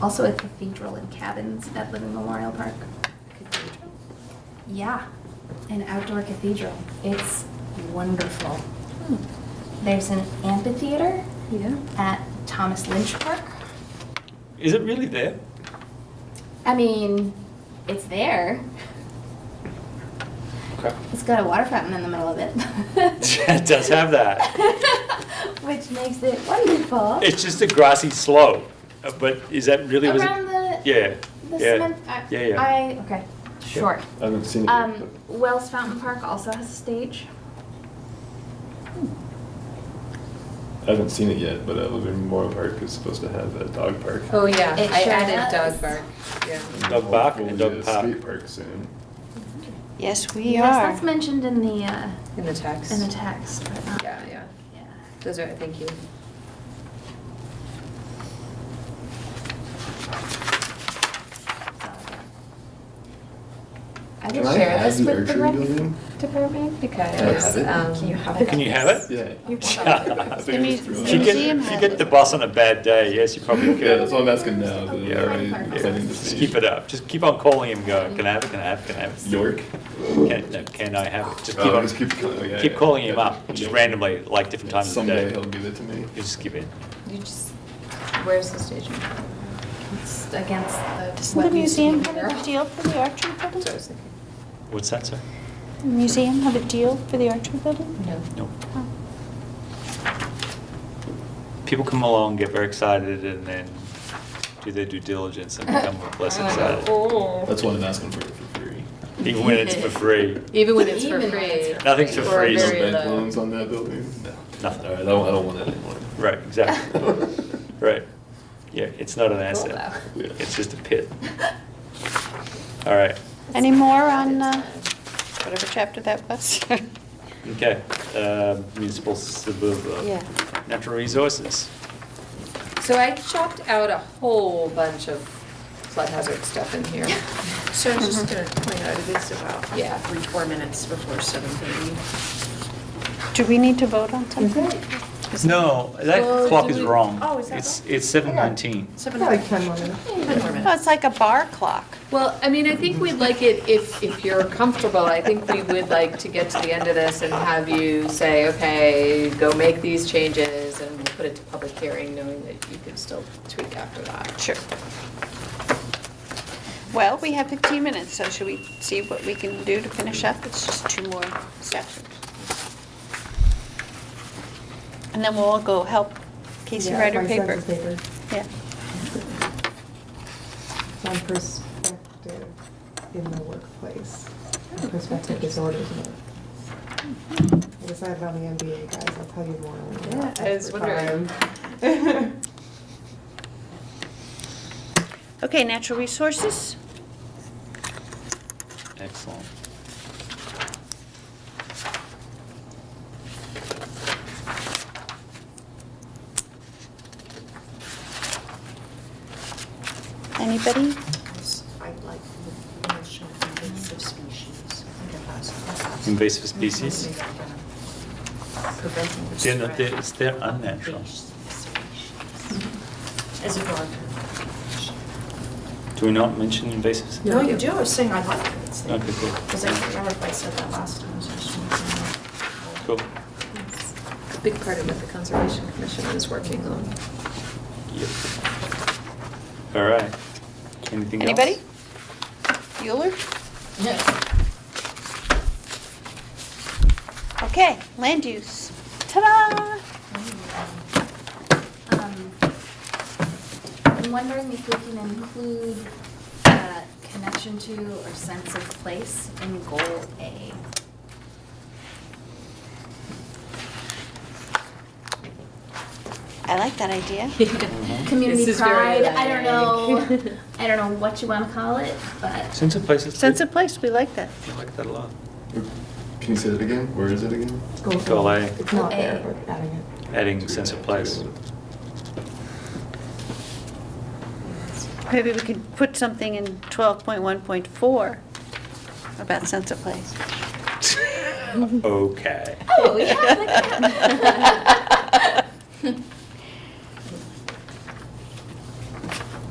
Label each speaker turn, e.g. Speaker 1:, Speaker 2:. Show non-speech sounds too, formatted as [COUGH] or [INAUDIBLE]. Speaker 1: Also a cathedral and cabins at Living Memorial Park.
Speaker 2: Cathedral?
Speaker 1: Yeah, an outdoor cathedral. It's wonderful.
Speaker 3: Hmm.
Speaker 1: There's an amphitheater
Speaker 2: Yeah.
Speaker 1: at Thomas Lynch Park.
Speaker 3: Is it really there?
Speaker 1: I mean, it's there.
Speaker 3: Okay.
Speaker 1: It's got a water fountain in the middle of it.
Speaker 3: [LAUGHS] It does have that.
Speaker 1: [LAUGHS] Which makes it wonderful.
Speaker 3: It's just a grassy slope, uh, but is that really? was it-
Speaker 1: Around the,
Speaker 3: Yeah,
Speaker 1: the
Speaker 3: yeah,
Speaker 1: cement. I,
Speaker 3: yeah, yeah.
Speaker 1: I, okay, sure.
Speaker 4: I haven't seen it yet,
Speaker 1: Um, Wells Fountain Park also has a stage.
Speaker 4: but- I haven't seen it yet, but uh, Living Memorial Park is supposed to have a dog park.
Speaker 2: Oh, yeah,
Speaker 1: It
Speaker 2: I
Speaker 1: sure
Speaker 2: added
Speaker 1: does.
Speaker 2: dog bark, yeah.
Speaker 3: Dog park and
Speaker 4: Hopefully
Speaker 3: dog
Speaker 4: a
Speaker 3: park.
Speaker 4: Skate park soon.
Speaker 5: Yes, we
Speaker 1: Yes,
Speaker 5: are.
Speaker 1: that's mentioned in the, uh,
Speaker 2: In the text.
Speaker 1: in the uh. text, but not.
Speaker 2: Yeah, yeah.
Speaker 1: Yeah.
Speaker 2: Those are, thank you.
Speaker 1: I
Speaker 4: Can
Speaker 1: did
Speaker 4: I
Speaker 1: share
Speaker 4: have
Speaker 1: this
Speaker 4: the
Speaker 1: with the
Speaker 4: archery
Speaker 1: rec
Speaker 4: building?
Speaker 1: department
Speaker 4: Can I
Speaker 2: Because,
Speaker 4: have it?
Speaker 2: um.
Speaker 1: Can you have it?
Speaker 3: Can you have it?
Speaker 4: Yeah.
Speaker 1: You
Speaker 3: can.
Speaker 4: [LAUGHS] I think I just threw
Speaker 5: The
Speaker 4: it
Speaker 3: If you get,
Speaker 4: out there.
Speaker 5: museum
Speaker 3: if you
Speaker 5: has
Speaker 3: get
Speaker 5: it.
Speaker 3: the bus on a bad day, yes, you probably
Speaker 4: Yeah,
Speaker 3: could.
Speaker 4: that's what I'm asking now, but I already decided to
Speaker 3: Just
Speaker 4: see.
Speaker 3: keep it up. Just keep on calling him, going, can I have it, can I have it, can I have it?
Speaker 4: York?
Speaker 3: Can, no, can I have it? Just keep
Speaker 4: Oh,
Speaker 3: on,
Speaker 4: just keep calling- yeah,
Speaker 3: keep
Speaker 4: yeah.
Speaker 3: calling him
Speaker 4: Yeah.
Speaker 3: up, just randomly, like different times of the
Speaker 4: Someday
Speaker 3: day.
Speaker 4: he'll
Speaker 3: You
Speaker 4: give it to me.
Speaker 3: just give in.
Speaker 2: You just, where's the station?
Speaker 1: It's against the.
Speaker 5: Doesn't
Speaker 1: what
Speaker 5: the
Speaker 1: used to be
Speaker 5: museum
Speaker 1: the mural.
Speaker 5: have a deal for the archery building?
Speaker 2: That's what I was thinking.
Speaker 3: What's that, sir?
Speaker 5: The museum have a deal for the archery building?
Speaker 2: No.
Speaker 3: No.
Speaker 5: Oh.
Speaker 3: People come along, get very excited, and then do their due diligence and become
Speaker 2: [LAUGHS]
Speaker 1: Oh,
Speaker 3: less excited.
Speaker 2: Oh.
Speaker 4: That's what I'm asking for, for free.
Speaker 3: Even when it's for free.
Speaker 2: Even when it's for
Speaker 1: Even when it's
Speaker 2: free.
Speaker 1: for
Speaker 3: Nothing's for
Speaker 2: Or
Speaker 3: free.
Speaker 4: No
Speaker 2: very
Speaker 4: bank
Speaker 2: low.
Speaker 4: loans on that building? No.
Speaker 3: Nothing.
Speaker 4: All right, I don't, I don't want it anymore.
Speaker 3: Right, exactly.
Speaker 4: [LAUGHS]
Speaker 3: Right. Yeah, it's not an asset.
Speaker 2: though.
Speaker 4: Yeah.
Speaker 3: It's just a pit.
Speaker 1: [LAUGHS]
Speaker 3: All right.
Speaker 5: Any more on uh, whatever chapter that was? [LAUGHS]
Speaker 3: Okay. Um, Municipal suburb.
Speaker 5: Yeah.
Speaker 3: Natural resources.
Speaker 2: So I chopped out a whole bunch of flood hazard stuff in
Speaker 1: [LAUGHS]
Speaker 2: here.
Speaker 6: So I was just gonna point out, it is about
Speaker 2: Yeah.
Speaker 6: three, four minutes before seven thirty.
Speaker 5: Do we need to vote on something?
Speaker 3: No, that clock is wrong.
Speaker 6: oh, is that
Speaker 3: It's, it's seven nineteen.
Speaker 6: Seven more minutes. Ten more
Speaker 5: Oh,
Speaker 6: minutes.
Speaker 5: it's like a bar clock.
Speaker 2: Well, I mean, I think we'd like it, if, if you're comfortable, I think we would like to get to the end of this and have you say, okay, go make these changes, and we'll put it to public hearing, knowing that you can still tweak after that.
Speaker 5: Sure. Well, we have 15 minutes, so should we see what we can do to finish up? It's just two more steps. And then we'll all go help Casey
Speaker 7: Yeah,
Speaker 5: write her
Speaker 7: my
Speaker 5: paper.
Speaker 7: son's paper.
Speaker 5: Yeah.
Speaker 7: On perspective in the workplace, perspective disorders in the workplace. I decided on the MBA, guys, I'll tell you more. when we're
Speaker 2: Yeah,
Speaker 7: up
Speaker 2: I was
Speaker 7: for
Speaker 2: wondering. [LAUGHS]
Speaker 7: time.
Speaker 5: Okay, natural resources.
Speaker 3: Excellent.
Speaker 5: Anybody?
Speaker 6: I like the notion of invasive species. I think that's-
Speaker 3: Invasive species.
Speaker 6: Preventing the
Speaker 3: They're not-
Speaker 6: spread
Speaker 3: they're- it's- they're
Speaker 6: of
Speaker 3: unnatural.
Speaker 6: invasive species. As a gardener.
Speaker 3: Do we not mention invasive? species?
Speaker 6: No, you do, I was saying I like it. It's the-
Speaker 3: Okay, cool.
Speaker 6: Because I can't remember if I said that last time. so I just wanted to know.
Speaker 3: Cool.
Speaker 2: A big part of what the Conservation Commission is working on.
Speaker 3: Yep. All right. Anything else?
Speaker 5: Anybody? Bueller? Okay, land use. Ta-da!
Speaker 1: Um, I'm wondering if we can include uh, connection to or sense of place in goal A.
Speaker 5: I like that
Speaker 2: [LAUGHS]
Speaker 5: idea.
Speaker 1: Community
Speaker 2: This is very
Speaker 1: pride, I don't
Speaker 2: vague. [LAUGHS]
Speaker 1: know, I don't know what you want to call it, but
Speaker 3: Sense of place is.
Speaker 5: Sense of place, we like that.
Speaker 3: I like that a lot.
Speaker 4: Can you say that again? Where is it again?
Speaker 7: Goal
Speaker 3: Goal A.
Speaker 7: It's not there,
Speaker 1: Goal A.
Speaker 7: but adding it.
Speaker 3: Adding sense of place.
Speaker 5: Maybe we could put something in 12.1.4 about sense of place.
Speaker 3: Okay. [LAUGHS]
Speaker 1: Oh, yeah, I like that.